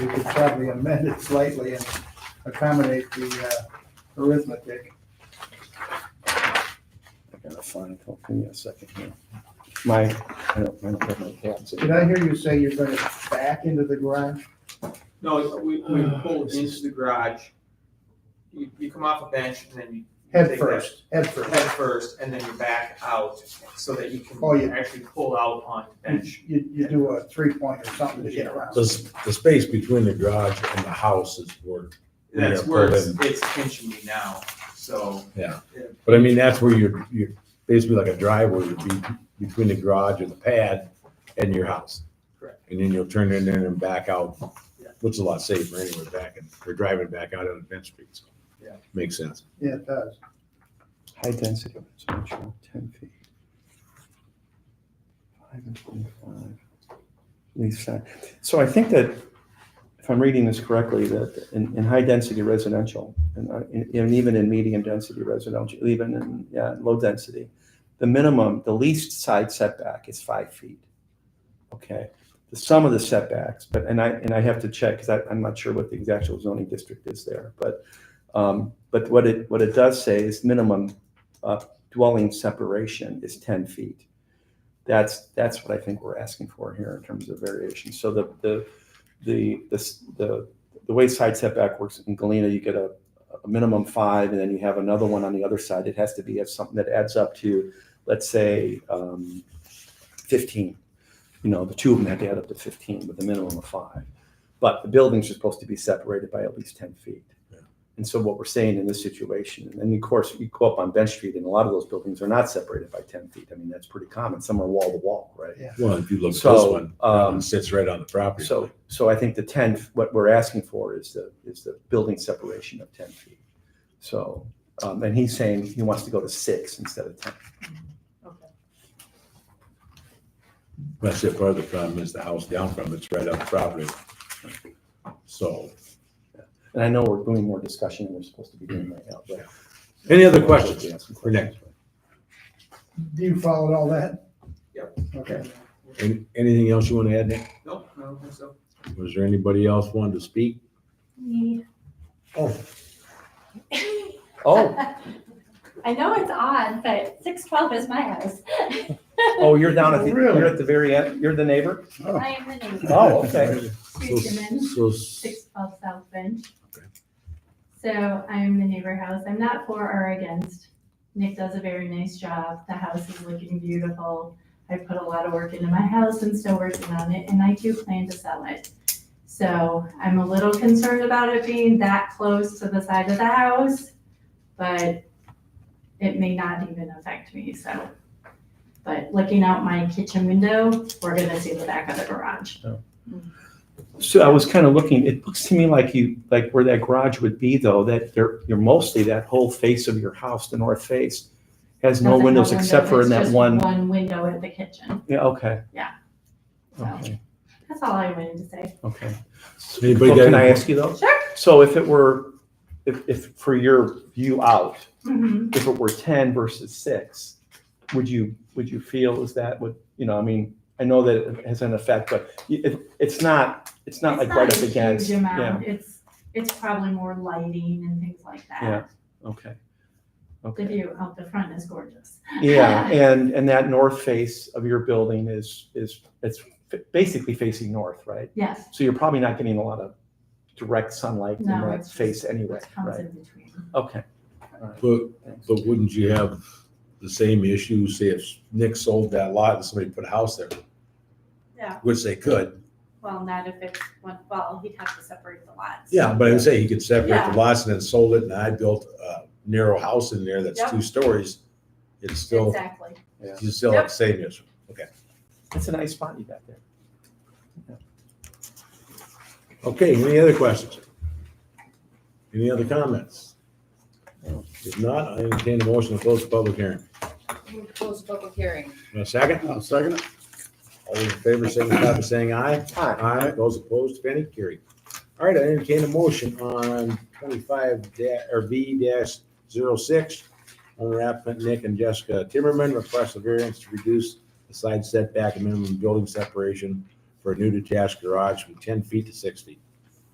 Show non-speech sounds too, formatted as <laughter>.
could probably amend it slightly and accommodate the uh, arithmetic. I gotta find, hold on a second here. My, I don't, I don't have my cats. Did I hear you say you're gonna back into the garage? No, we, we Uh, pulled into the garage. You, you come off a bench and then you. Head take first, head that first. Head first, and then you back out so that you Oh, can yeah. actually pull out on the bench. You, you do a three point or something to get around. The, s- the space between the garage and the house is where, Yeah, That's where pull it's, it's pinching me now, so. but I mean, that's where you're, you're basically like a driveway would be between the garage and the pad and your house. Correct. And then you'll turn in there and back out, Yeah. which is a lot safer anyway, back and, or driving back out on Bench Street. so. Yeah. Makes sense. Yeah, it does. High density residential, ten feet. Five and twenty-five. Least side. So I think that, if I'm reading this correctly, that in, in high density residential, and, uh, in- and even in medium density residential, even in, yeah, low density, the minimum, the least side setback is five feet. Okay, the sum of the setbacks, but, and I, and I have to check, because I, I'm not sure what the exact zoning district is there, but, um, but what it, what it does say is minimum uh, dwelling separation is 10 feet. That's, that's what I think we're asking for here in terms of variation. So the, the, the, the, s- the the way side setback works in Galena, you get a, a minimum five, and then you have another one on the other side. It has to be at something that adds up to, let's say, um, 15. You know, the two of them had to add up to 15 with a minimum of five. But the buildings are supposed to be separated by at least 10 feet. And so what we're saying in this situation, and of course, you go up on Bench Street and a lot of those buildings are not separated by ten feet. I mean, that's pretty common. Some are wall to wall, right? Well, if you look at this So, one, um, it sits right on the property. So, so I think the ten, what we're asking for is the, is the building separation of ten feet. So, um, and he's saying he wants to go to six instead of ten. That's it, part of the problem is the house down from, it's right on the property. So, And I know we're doing more discussion than we're supposed to be doing right now, but. any other questions? for next? Do you follow all that? Yep. Okay. Any- Anything else you want to add, Nick? Nope, I don't think so. Was there anybody else wanted to speak? Me. Oh. Oh, <laughs> I know it's odd, but six twelve is my house. oh, you're down at the, Really? you're at the very end, you're the neighbor? <laughs> I am the neighbor, Oh, okay. So, Streeterman, so- six twelve South Bench. Okay. So I'm the neighbor house. I'm not for or against. Nick does a very nice job. The house is looking beautiful. I put a lot of work into my house and still working on it, and I do plan to sell it. So I'm a little concerned about it being that close to the side of the house, but it may not even affect me, so. But looking out my kitchen window, we're gonna see the back of the garage. So I was kind of looking, it looks to me like you, like where that garage would be though, that there, you're mostly that whole face of your house, the north face, has no Doesn't have windows except for in it's that just one, One window at the kitchen. yeah, okay. Yeah. Okay. That's all I wanted to say. Okay. Anybody Well, got can I any- ask you though? Sure. So if it were, if, if for your view out, Mhm. if it were ten versus six, would you, would you feel is that would, you know, I mean, I know that it has an effect, but you- it, it's not, it's not It's like right a up huge against. Yeah, amount. It's, it's probably more lighting and things like Yeah. that. okay. The Okay, view out the front is gorgeous. <laughs> yeah, and, and that north face of your building is, is, it's fa- basically facing north, right? Yes, So you're probably not getting a lot of direct sunlight in No, that it's just- face anyway, what comes right? in between. Okay. But, but wouldn't you have the same issue, say if Nick sold that lot and somebody put a house there? Yeah. Which they could, Well, not if it's one, well, he'd have to separate the lots. yeah, but I would say he could separate Yeah. the lots and then sold it, and I built a narrow house in there that's Yep. two stories. It's still, Exactly. you still have the same issue. That's a nice spot you got there. Okay, any other questions? Any other comments? If not, I entertain a motion to close the public hearing. Move to close the public hearing. Want a second? I'll second it. All those in favor, signify by saying aye. Hi. Aye. Those opposed, if any, carried. All right, I entertain a motion on twenty-five da- or B dash zero six. Owner applicant Nick and Jessica Timmerman request a variance to reduce the side setback and minimum building separation for a new detached garage from ten feet to six feet.